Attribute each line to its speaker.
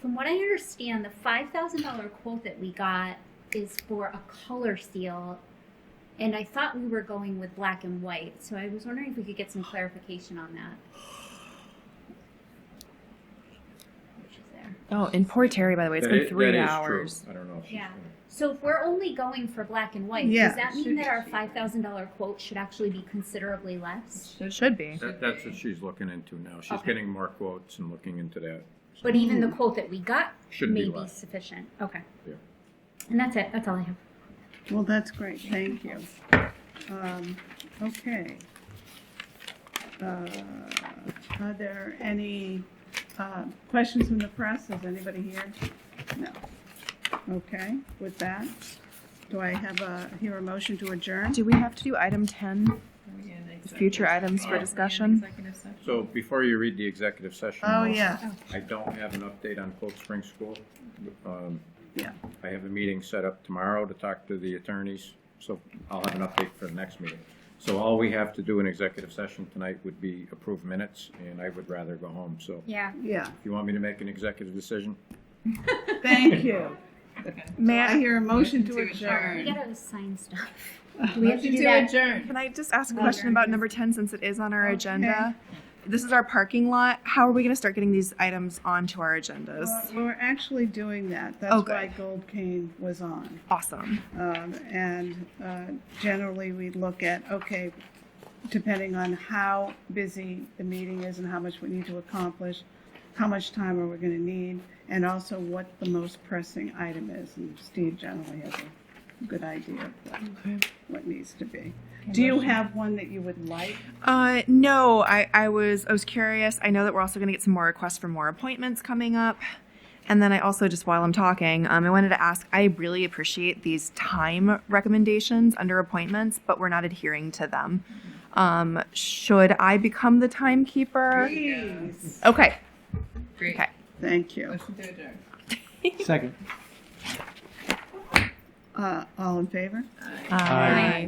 Speaker 1: from what I understand, the five thousand dollar quote that we got is for a color seal, and I thought we were going with black and white. So I was wondering if we could get some clarification on that. Which is there.
Speaker 2: Oh, and poor Terry, by the way, it's
Speaker 3: That
Speaker 2: been
Speaker 3: i-
Speaker 2: three
Speaker 3: that is
Speaker 2: hours.
Speaker 3: true. I don't know. if she's
Speaker 1: Yeah.
Speaker 3: gonna-
Speaker 1: So if we're only going for black and white,
Speaker 4: Yeah.
Speaker 1: does that mean that our five thousand dollar quote should actually be considerably less?
Speaker 2: It should be.
Speaker 3: That, that's what she's looking into now. She's
Speaker 1: Okay.
Speaker 3: getting more quotes and looking into that.
Speaker 1: But even the quote that we got
Speaker 3: Should
Speaker 1: may
Speaker 3: be
Speaker 1: be,
Speaker 3: less.
Speaker 1: sufficient. Okay.
Speaker 3: Yeah.
Speaker 1: And that's it. That's all I have.
Speaker 4: Well, that's great, thank you. Um, okay. Uh, Are there any, uh, questions from the press? Is anybody here? No. Okay, with that, do I have a, hear a motion to adjourn?
Speaker 2: Do we have to do item 10? Future items for discussion?
Speaker 3: So before you read the executive session.
Speaker 4: Oh,
Speaker 3: notes,
Speaker 4: yeah,
Speaker 3: I don't have an update on Cold Spring School. Um,
Speaker 4: yeah,
Speaker 3: I have a meeting set up tomorrow to talk to the attorneys, so I'll have an update for the next meeting. So all we have to do in executive session tonight would be approve minutes, and I would rather go home. So
Speaker 1: Yeah.
Speaker 4: yeah,
Speaker 3: if you want me to make an executive decision,
Speaker 4: thank you. May I hear a motion to
Speaker 5: Motion to
Speaker 1: We
Speaker 4: adjourn?
Speaker 1: gotta sign stuff.
Speaker 5: We have to do that. adjourn.
Speaker 2: Can I just ask a
Speaker 1: Well,
Speaker 2: question
Speaker 1: there
Speaker 2: about
Speaker 1: is.
Speaker 2: number 10 since it is on our agenda? This is our parking lot. How are we going to start getting these items onto our
Speaker 4: Well,
Speaker 2: agendas?
Speaker 4: We're actually doing that,
Speaker 2: Oh,
Speaker 4: that's
Speaker 2: good.
Speaker 4: why Gold Cane was on.
Speaker 2: Awesome.
Speaker 4: Um, And uh, generally, we look at, okay, depending on how busy the meeting is and how much we need to accomplish, how much time are we going to need, and also what the most pressing item is. And Steve generally has a good idea of what- what needs to be. Do you have one that you would like?
Speaker 2: Uh, no, I, I was I was curious. I know that we're also going to get some more requests for more appointments coming up, and then I also just while I'm talking, um, I wanted to ask. I really appreciate these time recommendations under appointments, but we're not adhering to them. Um, should I become the timekeeper?
Speaker 4: Please.
Speaker 2: Okay.
Speaker 5: Great.
Speaker 2: Okay.
Speaker 4: Thank you.
Speaker 5: Motion to adjourn.
Speaker 6: Second.
Speaker 4: Uh, All in favor?
Speaker 6: Aye.